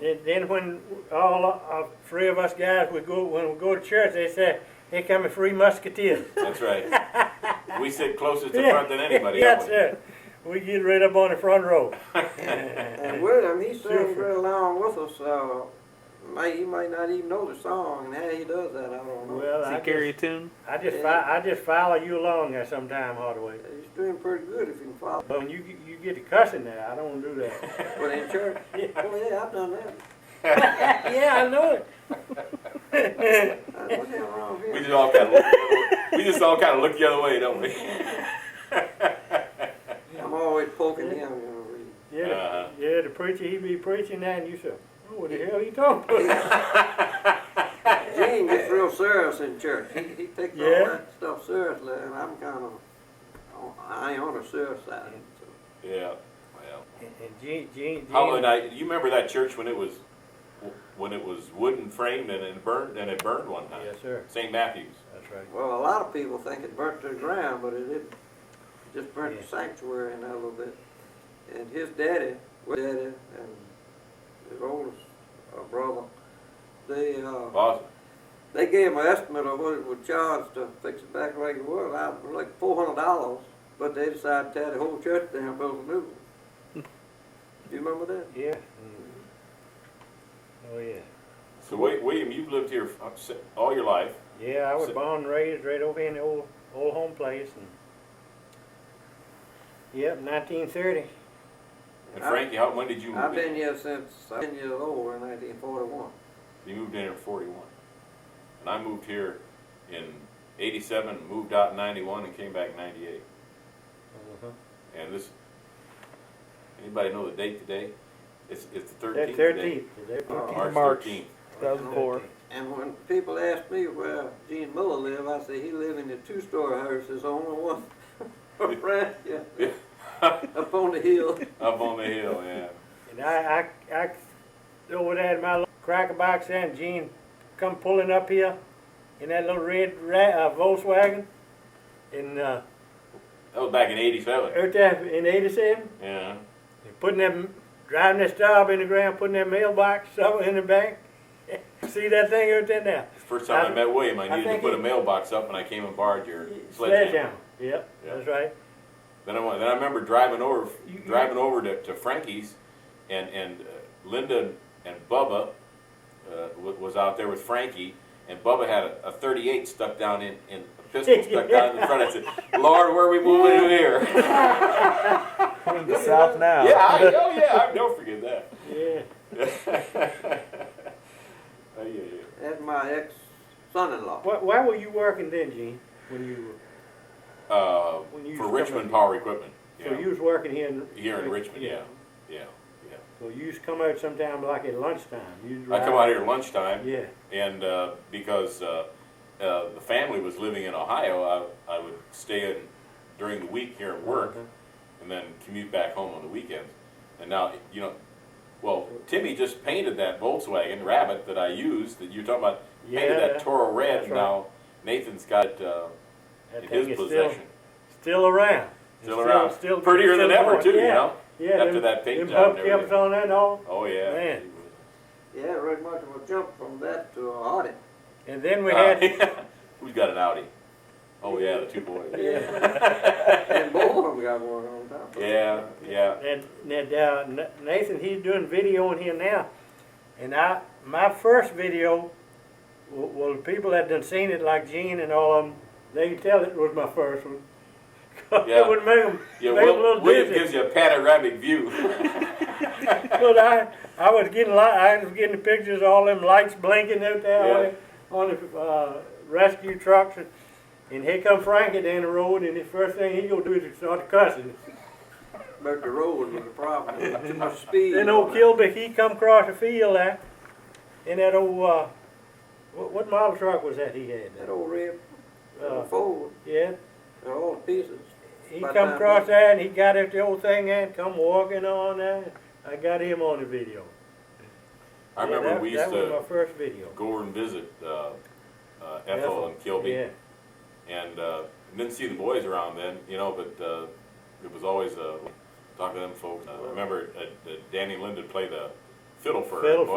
Then, then when all uh, three of us guys we go when we go to church, they say, "Here come the three musketeers." That's right. We sit closest to Yeah. front than anybody. yes, don't we? sir. We get right up on the front row. And William, he sings Different. right along with us, so might, he might not even know the song, and how he does that, I don't know. Well, Does I he carry a just, tune? I just fo- I just follow you along there sometime, Hardaway. He's doing pretty good if he can follow. But when you get- you get to cussing there, I don't do that. But in church, oh yeah, I've done that. yeah, I know it. I- What the hell wrong We with just him? all kind of look the other way. we just all kind of look the other way, don't we? I'm always poking him, you know. we- Yeah, the- Uh-huh. yeah. The preacher he be preaching that, and you say, oh, "What the hell are you talking about?" Gene gets real serious in church. He, he takes all Yeah. that stuff seriously, and I'm kind of, I ain't on the serious side. so. yeah. Well, and, and Gene, Gene, Gene, how and I, you remember that church when it was when it was wooden framed and it burned and it burned one time. Yes, sir. St. Matthews. That's right. Well, a lot of people think it burnt to the ground, but it didn't. It just burnt Yeah. the sanctuary in there a little bit. And his daddy, his daddy, and his oldest uh, brother, they uh, Awesome. they gave him an estimate of what it would charge to fix it back like it was. I was like four hundred dollars, but they decided to tear the whole church down and build a new one. Do you remember that? Yeah. Oh yeah. So wait, William, you've lived here f- s- all your life. Yeah, I was So- born and raised right over here in the old old home place and Yep, nineteen thirty. And Frankie, how, when did you move I've in? been here since I was ten years old in 1941. You moved in here in 41. And I moved here in 87, moved out in 91, and came back in 98. And this, anybody know the date today? It's, it's the 13th. That today. thirteenth. Uh, March, March. 13th. 2004. And when people ask me where Gene Miller lived, I say he lived in a two-story house. There's only one around here, up on the hill. Up on the hill, yeah. And I, I, I, over there in my little cracker box there, and Gene come pulling up here in that little red ra- uh, Volkswagen. And uh, That was back in 87. out there in '87, Yeah. putting them, driving that stub in the ground, putting that mailbox somewhere in the bank. See that thing out there now? First time I, I- met William, I I needed to think put a he- mailbox up, and I came and borrowed your Sledgehammer. Yep, Yeah. that's right. Then I went, then I remember driving over You- you- driving over to, to Frankie's, and and uh, Linda and Bubba uh, w- was out there with Frankie, and Bubba had a, a 38 stuck down in, in a pistol stuck down in the front. I said, "Lord, where are we moving in here?" We're in the South now. yeah, I, oh yeah, I don't forget that. Yeah. Oh, yeah, yeah. That's my ex-son-in-law. Why, why were you working then, Gene? When you Uh, When you for used to Richmond come in- Power Equipment. Yeah. so you was working here in here in Richmond, yeah, yeah, yeah. So you used to come out sometime like at lunchtime. You I come out here at lunchtime. Yeah. And uh, because uh, uh, the family was living in Ohio, I, I would stay in during the week here and work, Mhm. and then commute back home on the weekends. And now, you know, well, Timmy just painted that Volkswagen Rabbit that I used that you're talking about. painted Yeah, that Toro red. that's and Now Nathan's got it uh, That in thing his is possession. Still, still around. Still around. Prettier than ever, going. too, you Yeah. know, Yeah. after them, that paint them job and hubcaps everything. on that and all. Oh yeah. Man. Yeah, right much of a jump from that to a audit. And then we Uh, had who's got an Audi? Oh yeah, the two boys. And both of them got one on top. of it. Yeah, yeah. and, and uh, Na- Nathan. He's doing video on here now, and I my first video. Well, well, the people that done seen it, like Gene and all of them, they can tell it was my first one. Yeah. it would make them, Yeah, make 'em a Will, little William dizzy. gives you a panoramic view. But I, I was getting li- I was getting pictures of all them lights blinking out there on the, on the uh, rescue trucks, and, and here come Frankie down the road, and the first thing he gonna do is start cussing. But the road was the problem. There was Too much speed. Then old Kilby, he come across the field there, and that old uh, what, what model truck was that he had? That old red Uh, uh, Ford, Yeah, they're all pieces. he By come time across we- there and he got at the old thing and come walking on there. I got him on the video. I remember yeah, that, we used that was to my first video. go over and visit uh, uh, Ethel and Kilby, Yeah. and uh, didn't see the boys around then, you know. But uh, it was always uh, talking to them folks. Uh, I remember uh, uh, Danny Linden played the fiddle for Fiddle